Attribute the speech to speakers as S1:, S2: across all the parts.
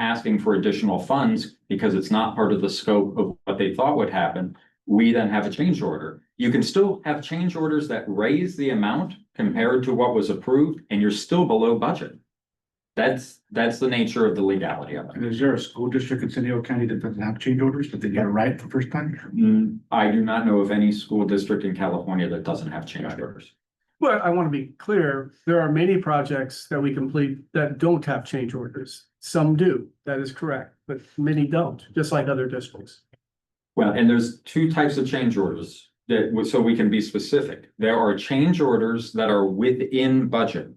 S1: asking for additional funds because it's not part of the scope of what they thought would happen, we then have a change order. You can still have change orders that raise the amount compared to what was approved, and you're still below budget. That's, that's the nature of the legality of it.
S2: And is there a school district in San Diego County that doesn't have change orders, but they get it right the first time?
S1: Mm, I do not know of any school district in California that doesn't have change
S2: Got it.
S1: orders.
S3: Well, I want to be clear, there are many projects that we complete that don't have change orders. Some do, that is correct, but many don't, just like other districts.
S1: Well, and there's two types of change orders that, w- so we can be specific. There are change orders that are within budget.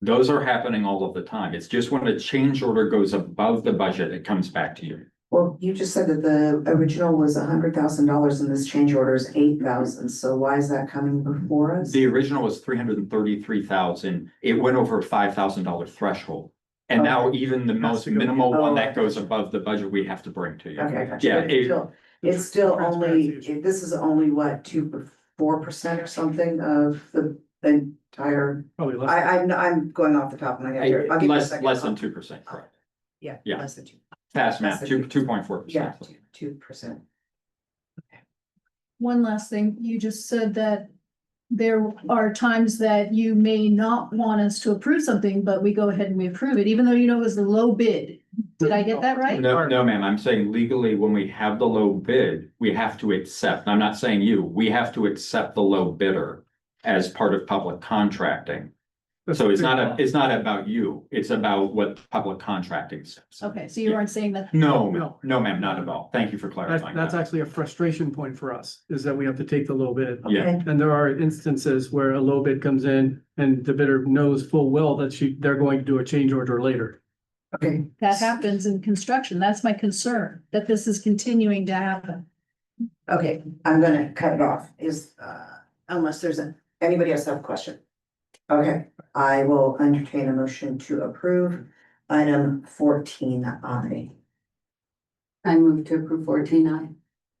S1: Those are happening all of the time. It's just when a change order goes above the budget, it comes back to you.
S4: Well, you just said that the original was hundred thousand dollars and this change order is eight thousand, so why is that coming before us?
S1: The original was three hundred and thirty-three thousand. It went over five thousand dollar threshold.
S4: Oh.
S1: And now even the most minimal one that goes above the budget, we have to bring to you.
S4: Okay, gotcha.
S1: Yeah,
S4: But
S1: it-
S4: it's still- It's still only,
S3: Transparency issue.
S4: it- this is only what, two, four percent or something of the entire,
S3: Probably less.
S4: I, I'm, I'm going off the top of my head here. I'll give you a
S1: Less,
S4: second.
S1: less than two percent, correct.
S4: Yeah,
S1: yeah.
S4: less than two,
S1: Fast math,
S4: Less than
S1: two,
S4: two.
S1: two point four
S4: yeah,
S1: percent.
S4: two percent.
S5: One last thing, you just said that there are times that you may not want us to approve something, but we go ahead and we approve it, even though you know it was a low bid. Did I get that right?
S1: No, no, ma'am, I'm saying legally, when we have the low bid, we have to accept, and I'm not saying you, we have to accept the low bidder as part of public contracting. So it's not, a it's not about you, it's about what public contracting says.
S5: Okay, so you
S1: Yeah.
S5: weren't saying that.
S1: No,
S3: No.
S1: no, ma'am, not at all. Thank you for
S3: That's,
S1: clarifying
S3: that's
S1: that.
S3: actually a frustration point for us, is that we have to take the low bid.
S1: Yeah.
S4: Okay,
S3: And there are instances where a low bid comes in and the bidder knows full well that she, they're going to do a change order later.
S4: okay.
S5: That happens in construction. That's my concern, that this is continuing to happen.
S4: Okay, I'm gonna cut it off, is, uh, unless there's a, anybody else have a question? Okay, I will entertain a motion to approve item fourteen I.
S6: I move to approve fourteen I.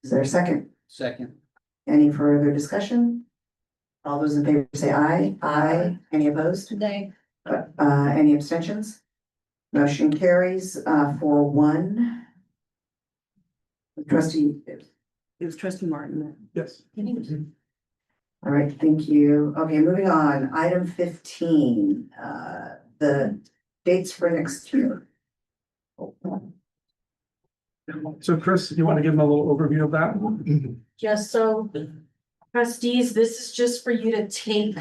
S4: Is there a second?
S6: Second.
S4: Any further discussion? All those in favor say aye. Aye. Any opposed?
S5: Today,
S4: Uh, any abstentions? Motion carries, uh, for one. Trustee,
S6: It was trustee Martin that.
S3: Yes.
S4: all right, thank you. Okay, moving on, item fifteen, uh, the dates for next year.
S3: So Chris, you want to give them a little overview of that?
S7: Yes, so trustees, this is just for you to take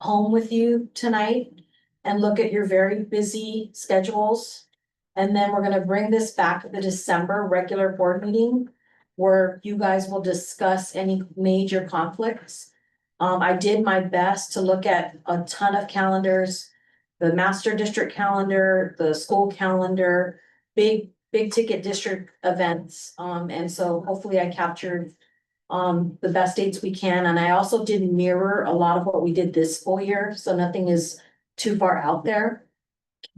S7: home with you tonight and look at your very busy schedules. And then we're gonna bring this back at the December regular board meeting where you guys will discuss any major conflicts. Um, I did my best to look at a ton of calendars, the master district calendar, the school calendar, big big ticket district events, um, and so hopefully I captured. Um, the best dates we can, and I also did mirror a lot of what we did this full year, so nothing is too far out there.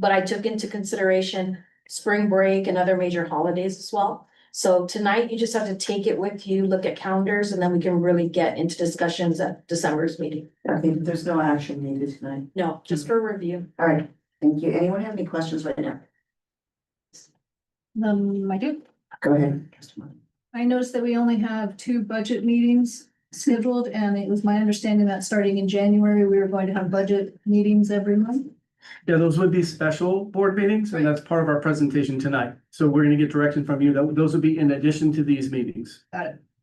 S7: But I took into consideration spring break and other major holidays as well. So tonight, you just have to take it with you, look at calendars, and then we can really get into discussions at December's meeting.
S4: Okay, there's no action needed tonight.
S7: No, just for review.
S4: All right, thank you. Anyone have any questions right now?
S5: um, I do,
S4: Go ahead. Trustee Martin.
S5: I noticed that we only have two budget meetings scheduled, and it was my understanding that starting in January, we were going to have budget meetings every month.
S3: Yeah, those would be special board meetings, and that's part of our presentation tonight. So we're gonna get direction from you. That, those would be in addition to these meetings.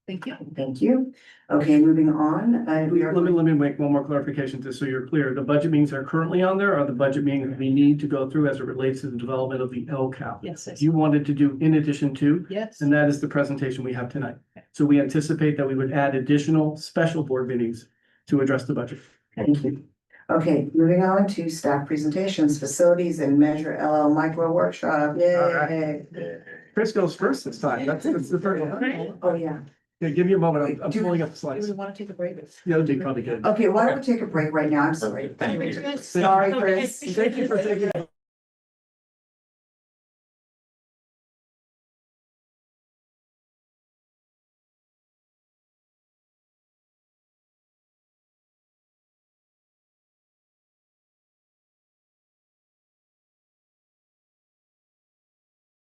S5: Thank you.
S4: Thank you. Okay, moving on, uh, we are.
S3: Let me, let me make one more clarification, just so you're clear. The budget meetings are currently on there are the budget meetings that we need to go through as it relates to the development of the LCAP.
S5: Yes, yes.
S3: You wanted to do in addition to,
S5: Yes.
S3: and that is the presentation we have tonight. So we anticipate that we would add additional special board meetings to address the budget.
S4: Thank you. Okay, moving on to staff presentations, facilities and measure LL micro workshop. Yay.
S3: Alright. Chris goes first this time. That's, that's the first. one.
S4: Oh, yeah.
S3: Yeah, give me a moment. I'm- I'm pulling up the slides.
S7: want to take a break? Oh,
S3: Yeah, that'd be probably good.
S4: Okay, why don't we take a break right now? I'm sorry.
S1: Thank you.
S4: Sorry, Chris.
S3: Thank you for taking.